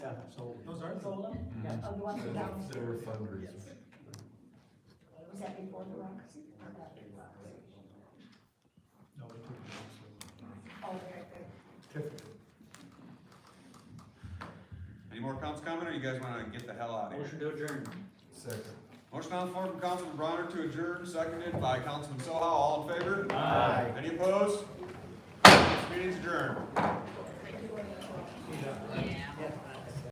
sold. Those are sold. Zola? Mhm. Oh, the ones They down, they were fundraisers. was that before the Roxy? Or after the Roxy? No, we couldn't. do Oh, very good. those. Any more comments, comment, or you guys wanna get the hell out of here? Motion to adjourn. Second. Motion on the floor from Councilman Bronner to adjourn, seconded by Councilman Soha, all in favor? Aye. Any opposed? This meeting's adjourned.